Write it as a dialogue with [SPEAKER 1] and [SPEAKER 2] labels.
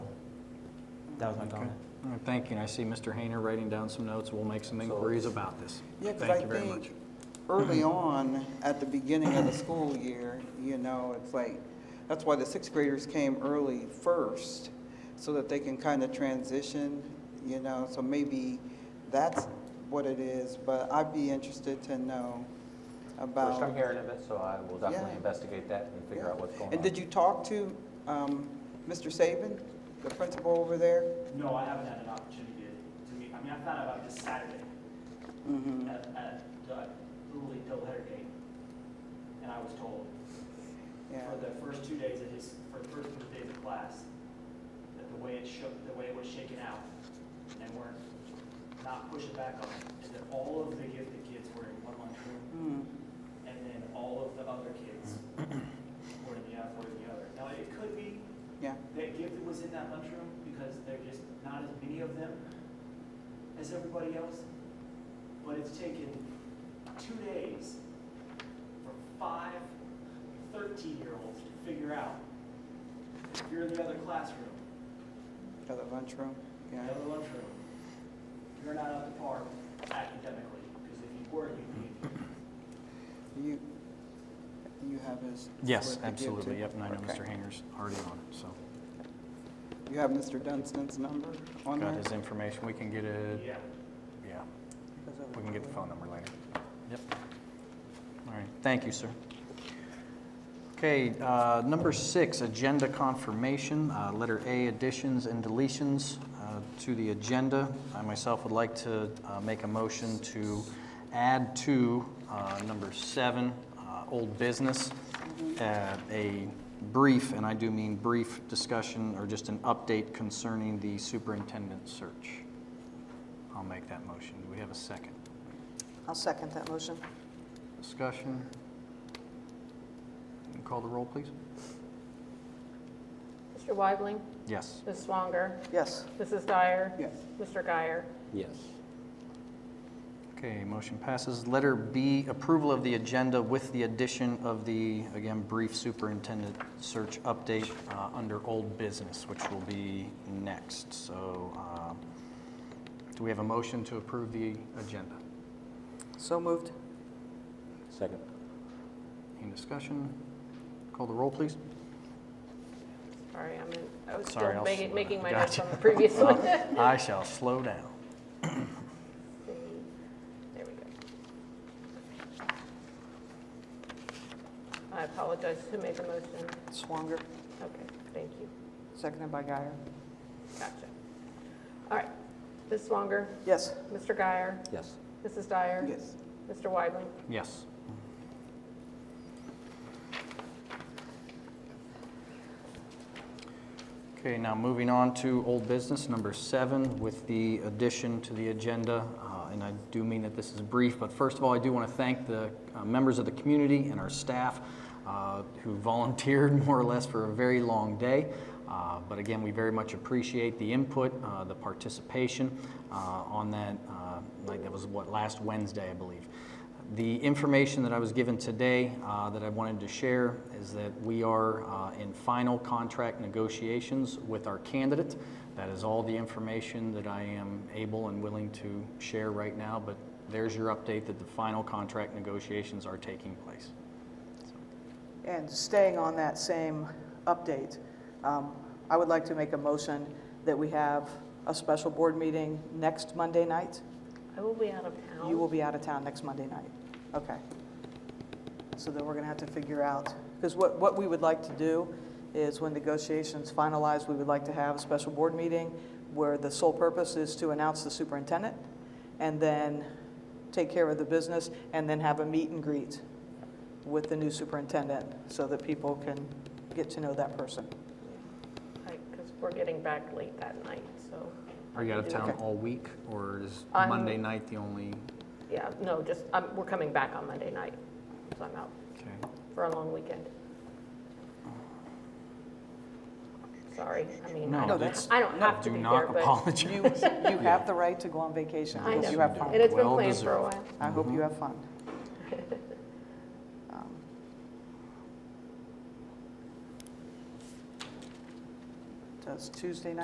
[SPEAKER 1] That was my
[SPEAKER 2] Okay.
[SPEAKER 1] comment.
[SPEAKER 2] All right, Thank you, and I see Mr. Hayner writing down some notes, we'll make some inquiries about this.
[SPEAKER 3] Yeah, because I
[SPEAKER 2] Thank you very much.
[SPEAKER 3] think early
[SPEAKER 4] Mm-hmm.
[SPEAKER 3] on, at the beginning of the school year, you know, it's like, that's why the sixth graders came early first, so that they can kind of transition, you know, so maybe that's what it is, but I'd be interested to know
[SPEAKER 4] First
[SPEAKER 3] about.
[SPEAKER 4] I'm hearing of it, so I will definitely
[SPEAKER 3] Yeah.
[SPEAKER 4] investigate that and figure out what's going on.
[SPEAKER 3] And did you talk to um, Mr. Saban, the principal over there?
[SPEAKER 5] No, I haven't had an opportunity to, to meet, I mean, I found out about it this Saturday
[SPEAKER 3] Mm-hmm.
[SPEAKER 5] at, at the Little League doubleheader game. And I was told
[SPEAKER 3] Yeah,
[SPEAKER 5] for the first two days of his, for the first two days of class, that the way it shook, the way it was shaken out, and they weren't, not pushing back on it, is that all of the, if the kids were in one lunchroom,
[SPEAKER 3] Mm,
[SPEAKER 5] and then all of the other kids were in the, oth- were in the other. Now, it could be
[SPEAKER 3] yeah,
[SPEAKER 5] that Gifford was in that lunchroom because there are just not as many of them as everybody else. But it's taken two days for five 13-year-olds to figure out if you're in the other classroom,
[SPEAKER 3] for the lunchroom,
[SPEAKER 5] the
[SPEAKER 3] yeah.
[SPEAKER 5] other lunchroom, you're not up to par academically because if you were, you'd be.
[SPEAKER 3] You, you have his.
[SPEAKER 2] Yes,
[SPEAKER 3] what to give to-
[SPEAKER 2] absolutely, yep, and I know
[SPEAKER 3] Okay.
[SPEAKER 2] Mr. Hayner's already on it, so.
[SPEAKER 3] You have Mr. Dunstan's number on there?
[SPEAKER 2] Got his information, we can get it,
[SPEAKER 5] Yeah.
[SPEAKER 2] yeah, we can get the phone number later. Yep. All right, thank you, sir. Okay, uh, number six, agenda confirmation, uh, letter A, additions and deletions uh, to the agenda. I myself would like to uh, make a motion to add to uh, number seven, uh, old business, uh, a brief, and I do mean brief discussion or just an update concerning the superintendent search. I'll make that motion. Do we have a second?
[SPEAKER 6] I'll second that motion.
[SPEAKER 2] Discussion. Can you Call the roll, please.
[SPEAKER 7] Mr. Weidling,
[SPEAKER 2] Yes.
[SPEAKER 7] Ms. Swanger,
[SPEAKER 6] Yes,
[SPEAKER 7] Mrs. Dyer.
[SPEAKER 3] Yes.
[SPEAKER 7] Mr. Guyer.
[SPEAKER 4] Yes.
[SPEAKER 2] Okay, motion passes. Letter B, approval of the agenda with the addition of the, again, brief superintendent search update uh, under old business, which will be next. So uh, do we have a motion to approve the agenda?
[SPEAKER 6] so moved.
[SPEAKER 4] Second.
[SPEAKER 2] Any discussion? Call the roll, please.
[SPEAKER 7] Sorry, I'm in, I was
[SPEAKER 2] Sorry,
[SPEAKER 7] still
[SPEAKER 2] I'll
[SPEAKER 7] making,
[SPEAKER 2] slow
[SPEAKER 7] making
[SPEAKER 2] down.
[SPEAKER 7] my notes
[SPEAKER 2] Gotcha.
[SPEAKER 7] on the previous one. Let's
[SPEAKER 2] I shall slow down.
[SPEAKER 7] see. There we go. I apologize. Who made the motion?
[SPEAKER 6] Swanger,
[SPEAKER 7] Okay, thank you.
[SPEAKER 6] seconded by Guyer.
[SPEAKER 7] Gotcha. All right. Ms. Swanger,
[SPEAKER 6] Yes,
[SPEAKER 7] Mr. Guyer,
[SPEAKER 4] Yes.
[SPEAKER 7] Mrs. Dyer.
[SPEAKER 3] Yes.
[SPEAKER 7] Mr. Weidling.
[SPEAKER 2] Yes. Okay, now moving on to old business, number seven, with the addition to the agenda. uh, And I do mean that this is brief, but first of all, I do want to thank the uh, members of the community and our staff uh, who volunteered more or less for a very long day. Uh, But again, we very much appreciate the input, uh, the participation uh, on that, uh, like, that was what, last Wednesday, I believe. The information that I was given today uh, that I wanted to share is that we are uh, in final contract negotiations with our candidate. That is all the information that I am able and willing to share right now, but there's your update that the final contract negotiations are taking place.
[SPEAKER 6] and staying on that same update, um, I would like to make a motion that we have a special board meeting next Monday night.
[SPEAKER 7] I will be out of
[SPEAKER 6] You will
[SPEAKER 7] town.
[SPEAKER 6] be out of town next Monday night. Okay. So then we're going to have to figure out, because what, what we would like to do is when negotiations finalize, we would like to have a special board meeting where the sole purpose is to announce the superintendent and then take care of the business and then have a meet and greet with the new superintendent so that people can get to know that person.
[SPEAKER 7] Because we're getting back late that night, so.
[SPEAKER 2] Are you out of town
[SPEAKER 6] Okay.
[SPEAKER 2] all week, or is
[SPEAKER 7] I'm-
[SPEAKER 2] Monday night the only?
[SPEAKER 7] Yeah, no, just, I'm, we're coming back on Monday night, so I'm out
[SPEAKER 2] Okay.
[SPEAKER 7] for a long weekend. Sorry, I mean, I
[SPEAKER 2] No,
[SPEAKER 7] don't,
[SPEAKER 2] that's-
[SPEAKER 7] I don't have to
[SPEAKER 2] Do
[SPEAKER 7] be
[SPEAKER 2] not
[SPEAKER 7] there, but
[SPEAKER 6] You,
[SPEAKER 2] apologize.
[SPEAKER 6] you have the right to go on vacation
[SPEAKER 7] I
[SPEAKER 6] because you
[SPEAKER 7] know.
[SPEAKER 6] have fun.
[SPEAKER 7] And it's been
[SPEAKER 2] Well
[SPEAKER 7] planned for a while.
[SPEAKER 6] I hope you have fun. Um, Does Tuesday night